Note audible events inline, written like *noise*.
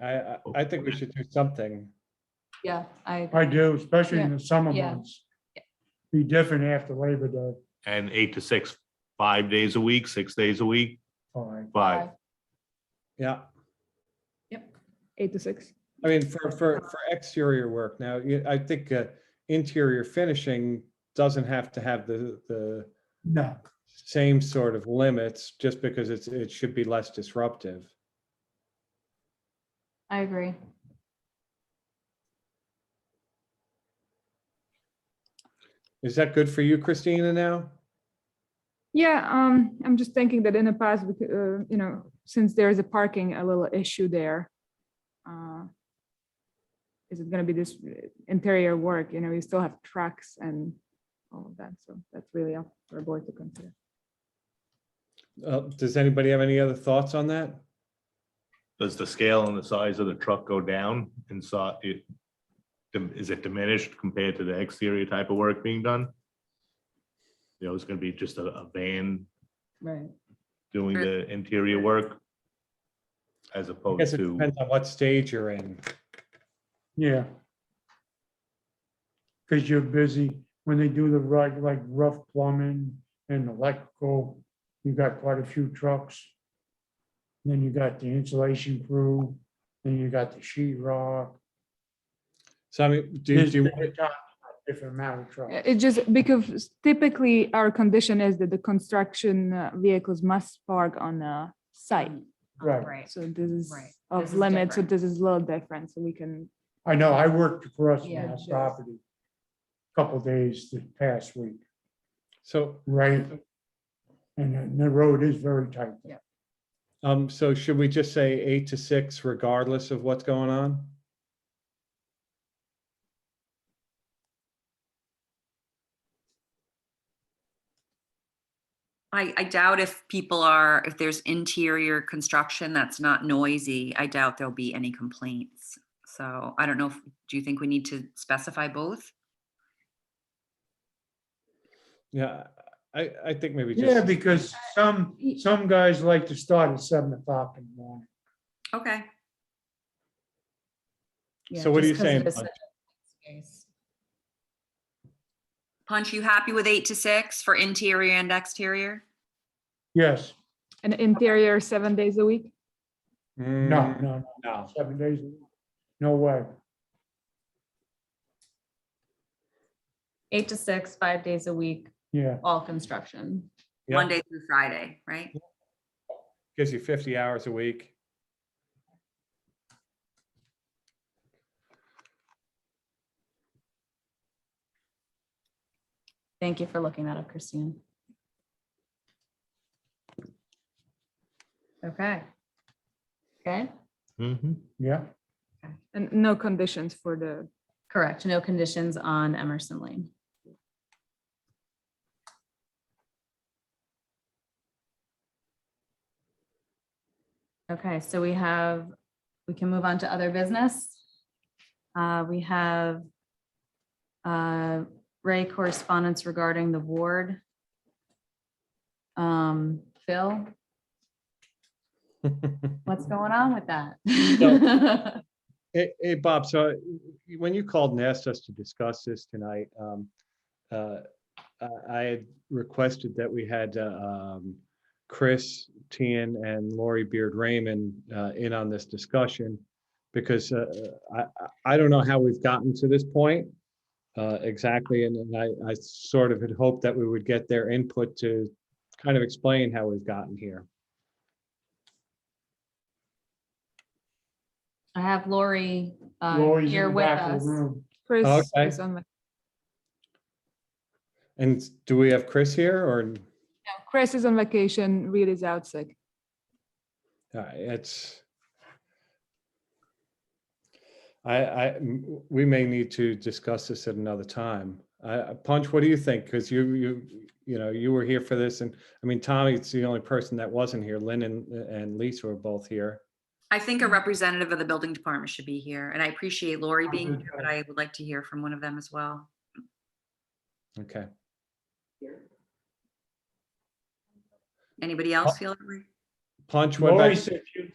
I, I, I think we should do something. Yeah, I, I do, especially in the summer Yeah. months. Be different after Labor Day, and eight to six, five days a week, six days a week, fine. five. Yeah. eight to six. I mean, for, for, for exterior work now, you- I think uh, interior finishing doesn't have to have the, the No, same sort of limits just because it's, it should be less disruptive. I agree. Is that good for you, Christina, now? Yeah, um, I'm just thinking that in the past, we could, uh, you know, since there is a parking, a little issue there. uh, Is it gonna be this uh, interior work, you know, you still have trucks and all of that, so that's really up for a board to consider. Uh, Does anybody have any other thoughts on that? Does the scale and the size of the truck go down inside? it- Is it diminished compared to the exterior type of work being done? You know, it's gonna be just a, a van Right. doing the interior work as I guess opposed it to, depends on what stage you're in. yeah. Because you're busy when they do the right, like rough plumbing and electrical, you got quite a few trucks. Then you got the insulation crew, then you got the sheet rock. So I mean, do, do, you- Different amount of trucks. Uh, It just, because typically our condition is that the construction uh, vehicles must park on a site. Right. So this is Right. This of is limit, so different. this is a little different, so we can, I know, I worked across from Yeah, that sure. property. Couple days this past week, so, right? And then the road is very tight. um, so should we just say eight to six regardless of what's going on? I, I doubt if people are, if there's interior construction that's not noisy, I doubt there'll be any complaints. So I don't know, if- do you think we need to specify both? Yeah, I, I think maybe Yeah, just, because some, some guys like to start at seven o'clock in the morning. Okay, so what are you saying? Bud? Punch, you happy with eight to six for interior and exterior? Yes, an interior seven days a week. no, Mm, no, No. no, seven days, a week. no way. Eight to six, five days a week, Yeah, all construction. Yeah. Monday through Friday, right? Gives you fifty hours a week. Thank you for looking that up, Christine. Okay. Okay, Mhm. yeah, And no conditions for the, correct. No conditions on Emerson Lane. Okay, so we have, we can move on to other business. Uh, we have uh, Ray correspondence regarding the ward. Um, Phil, what's going on with that? Hey, hey, Bob, so y- when you called and asked us to discuss this tonight, um, uh, I- I had requested that we had, uh, um, Chris Tian and Lori Beard Raymond, uh, in on this discussion. Because, uh, I, I- I don't know how we've gotten to this point, uh, exactly, and, and I, I sort of had hoped that we would get their input to kind of explain how we've gotten here. *laughs* I have Lori uh, Lori's here in the with back of us. the room. Chris Okay. is on, my- And do we have Chris here or? Chris is on vacation, Reed is out sick. Uh, it's. I, I, m- we may need to discuss this at another time. Uh, Punch, what do you think? Because you, you, you know, you were here for this and, I mean, Tommy's the only person that wasn't here. Lynn and, and Lisa were both here. I think a representative of the building department should be here, and I appreciate Lori being Sounds here, but I would like to hear from one of them as well. Okay. Anybody else feel? that way? Punch, what Lori about, said she was